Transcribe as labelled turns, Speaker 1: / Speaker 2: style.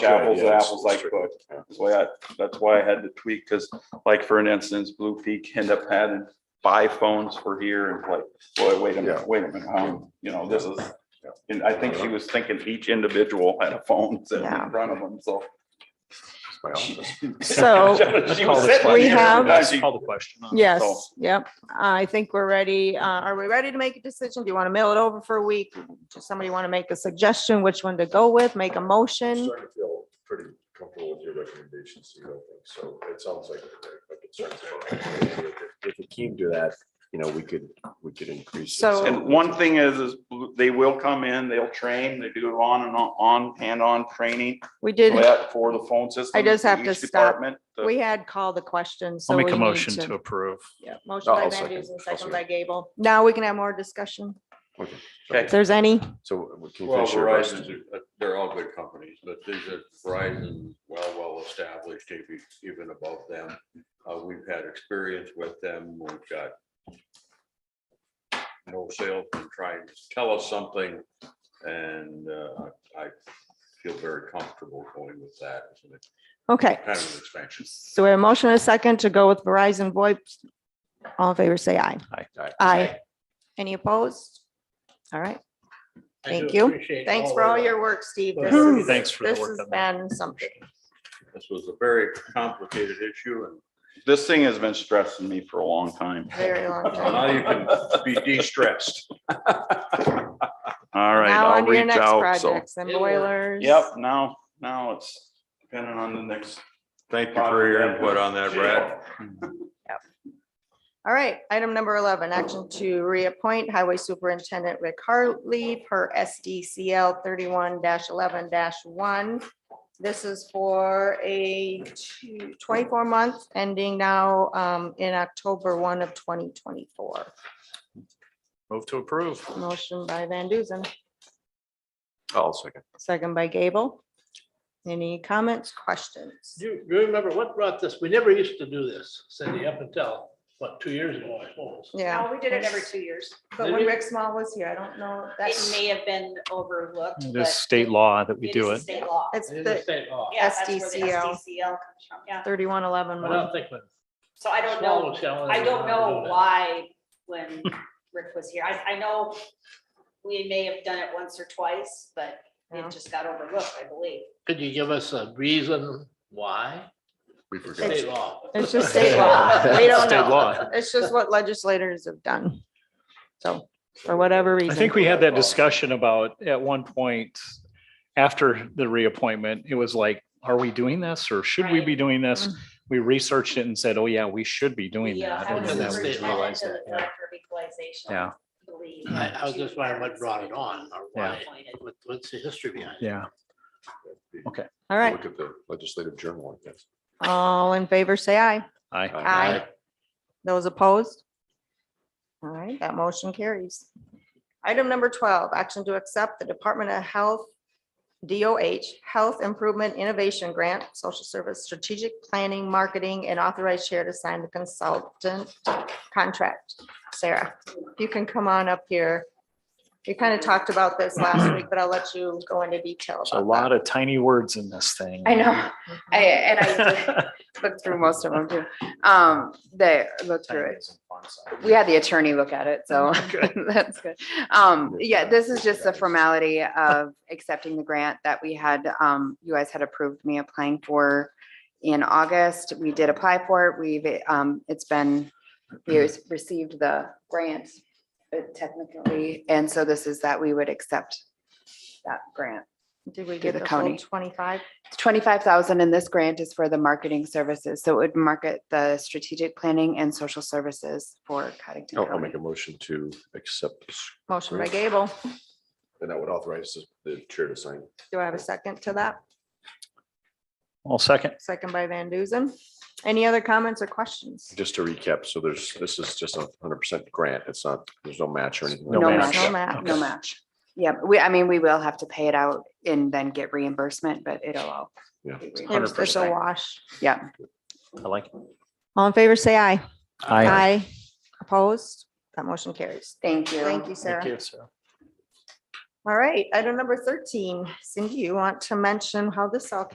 Speaker 1: apples
Speaker 2: yeah,
Speaker 1: to
Speaker 2: it's-
Speaker 1: apples like
Speaker 2: it's-
Speaker 1: book.
Speaker 2: yeah.
Speaker 1: That's why I, that's why I had to tweak, because like for an instance, Blue Peak ended up having five phones for here and like, boy, wait a
Speaker 2: Yeah.
Speaker 1: minute, wait a minute, um, you know, this is.
Speaker 2: Yeah.
Speaker 1: And I think she was thinking each individual had a phone sitting
Speaker 3: Yeah.
Speaker 1: in front of them, so.
Speaker 2: It's my office.
Speaker 3: So
Speaker 1: She was sitting
Speaker 3: We
Speaker 1: here,
Speaker 3: have-
Speaker 1: and she-
Speaker 4: Call the question. huh?
Speaker 1: So-
Speaker 3: yes, yep. I think we're ready. Uh, are we ready to make a decision? Do you want to mail it over for a week? Does somebody want to make a suggestion which one to go with? Make a
Speaker 2: I'm
Speaker 3: motion?
Speaker 2: starting to feel pretty comfortable with your recommendations, you don't think, so it sounds like. my concerns are right. If it came to that, you know, we could, we could increase. it.
Speaker 3: So-
Speaker 1: And one thing is, is they will come in, they'll train, they do on and on, on, hand-on training
Speaker 3: We
Speaker 1: for
Speaker 3: did,
Speaker 1: that, for the phone system.
Speaker 3: I just
Speaker 1: for
Speaker 3: have to
Speaker 1: each
Speaker 3: stop.
Speaker 1: department, the-
Speaker 3: we had called the question, so
Speaker 4: I'll
Speaker 3: we
Speaker 4: make
Speaker 3: need
Speaker 4: a motion
Speaker 3: to.
Speaker 4: to approve.
Speaker 3: Yeah, motion
Speaker 2: No,
Speaker 3: by
Speaker 2: I'll
Speaker 3: Van
Speaker 2: second.
Speaker 3: Duzen,
Speaker 2: I'll
Speaker 3: second by Gable. Now we can have more discussion.
Speaker 2: Okay.
Speaker 1: Okay.
Speaker 3: If there's any,
Speaker 2: So we can
Speaker 5: Well,
Speaker 2: finish your
Speaker 5: Verizon's,
Speaker 2: rest.
Speaker 5: a- they're all good companies, but these are Verizon, well, well established, even, even above them. Uh, we've had experience with them, we've got no salesman trying to tell us something, and, uh, I feel very comfortable going with that. as an-
Speaker 3: okay.
Speaker 5: Kind of an expansion.
Speaker 3: So we have a motion and a second to go with Verizon VoIP. All in favor, say aye. Aye. Any opposed? All right. Thank you. Thanks for all your work, Steve. This is-
Speaker 4: Thanks for the
Speaker 3: This
Speaker 4: work
Speaker 3: has
Speaker 4: on that.
Speaker 3: been something.
Speaker 5: This was a very complicated issue, and
Speaker 1: This thing has been stressing me for a long time.
Speaker 3: Very long
Speaker 5: so
Speaker 3: time.
Speaker 5: now you can be de-stressed.
Speaker 1: All right,
Speaker 3: Now
Speaker 1: I'll
Speaker 3: on to your
Speaker 1: reach
Speaker 3: next
Speaker 1: out, so.
Speaker 3: projects and boilers.
Speaker 1: Yep, now, now it's depending on the next.
Speaker 5: Thank you for your input on that, Brad.
Speaker 3: All right, item number eleven, action to reappoint Highway Superintendent Rick Hartley per SDCL thirty-one eleven one. This is for a two- 24 month ending now um, in October one of twenty twenty-four.
Speaker 4: Move to approve.
Speaker 3: Motion by Van Duzen,
Speaker 2: I'll oh, second.
Speaker 3: second by Gable. Any comments, questions?
Speaker 6: Do you you remember what brought this? We never used to do this, Cindy, up until, what, two years ago, I suppose.
Speaker 3: Yeah,
Speaker 7: No, we did it every two years.
Speaker 3: but
Speaker 6: Did
Speaker 3: when
Speaker 6: we?
Speaker 3: Rick Small was here, I don't know,
Speaker 7: It
Speaker 3: that's,
Speaker 7: may have been overlooked.
Speaker 4: There's
Speaker 7: but
Speaker 4: state law that we
Speaker 7: is
Speaker 4: do
Speaker 7: a
Speaker 4: it.
Speaker 7: State law.
Speaker 3: it's
Speaker 6: It is a
Speaker 3: the
Speaker 6: state law.
Speaker 7: Yeah, that's where the
Speaker 3: SDCL.
Speaker 7: SDCL comes from, yeah.
Speaker 3: thirty-one eleven
Speaker 6: But oh, I
Speaker 3: one.
Speaker 6: don't think when.
Speaker 7: So I don't know, I don't know why when Rick was here. I, I know we may have done it once or twice, but
Speaker 3: Yeah.
Speaker 7: it just got overlooked, I believe.
Speaker 6: Could you give us a reason why?
Speaker 2: We forgot.
Speaker 6: State law.
Speaker 3: It's just state law. We don't
Speaker 4: State law.
Speaker 3: know. It's just what legislators have done. So for whatever reason.
Speaker 4: I think we had that discussion about at one point after the reappointment, it was like, are we doing this or should we be
Speaker 7: Right.
Speaker 4: doing this? We researched it and said, oh yeah, we should be doing
Speaker 7: We, uh,
Speaker 4: that.
Speaker 7: I
Speaker 4: And
Speaker 7: was
Speaker 4: then
Speaker 6: that
Speaker 4: we
Speaker 6: state law.
Speaker 7: superintendent
Speaker 4: realized
Speaker 7: to
Speaker 4: that,
Speaker 7: the
Speaker 4: yeah.
Speaker 7: director of equalization.
Speaker 4: Yeah.
Speaker 7: I believe,
Speaker 6: I, I was
Speaker 7: she
Speaker 6: just wondering what brought it on or
Speaker 4: Yeah.
Speaker 6: why, what, what's the history behind it?
Speaker 4: Yeah.
Speaker 3: All right,
Speaker 2: Look at the legislative journal, I guess.
Speaker 3: all in favor, say aye.
Speaker 4: I,
Speaker 3: Aye. Those opposed? All right, that motion carries. Item number twelve, action to accept the Department of Health, DOH, Health Improvement Innovation Grant, Social Service Strategic Planning, Marketing, and authorized chair to sign the consultant contract. Sarah, you can come on up here. We kind of talked about this last week, but I'll let you go into detail
Speaker 4: there's a
Speaker 3: about
Speaker 4: lot of tiny words in this thing.
Speaker 8: I know. I, and I looked through most of them too. Um, they looked through it. We had the attorney look at it, so that's Oh, good. Um, yeah, this is just a formality of accepting the grant that we had, um, you guys had approved me applying for in August. We did apply for it. We've, um, it's been, we received the grant uh, technically. And so this is that we would accept that grant.
Speaker 3: that. Did we
Speaker 8: Give
Speaker 3: get
Speaker 8: the
Speaker 3: the full
Speaker 8: county.
Speaker 3: twenty-five?
Speaker 8: Twenty-five thousand in this grant is for the marketing services, so it would market the strategic planning and social services for Cottington
Speaker 2: Oh, I'll, I'll make
Speaker 8: County.
Speaker 2: a motion to accept this,
Speaker 3: Motion by Gable.
Speaker 2: and that would authorize the- the chair to sign.
Speaker 3: Do I have a second to that?
Speaker 4: I'll second.
Speaker 3: Second by Van Duzen. Any other comments or questions?
Speaker 2: Just to recap, so there's, this is just a hundred percent grant. It's not, there's no match or anything.
Speaker 4: No
Speaker 8: No
Speaker 4: match.
Speaker 8: match.
Speaker 3: No match.
Speaker 8: No match. Yeah, we, I mean, we will have to pay it out and then get reimbursement, but it'll all.
Speaker 2: Yeah.
Speaker 8: be
Speaker 3: It's-
Speaker 8: reimbursed.
Speaker 3: It's a wash.
Speaker 8: Yeah,
Speaker 4: I like. it.
Speaker 3: All in favor, say aye.
Speaker 4: Aye.
Speaker 3: Opposed? That motion carries.
Speaker 8: thank you.
Speaker 3: Thank you,
Speaker 4: Thank
Speaker 3: Sarah.
Speaker 4: you, Sarah.
Speaker 3: All right, item number thirteen. Cindy, you want to mention how this all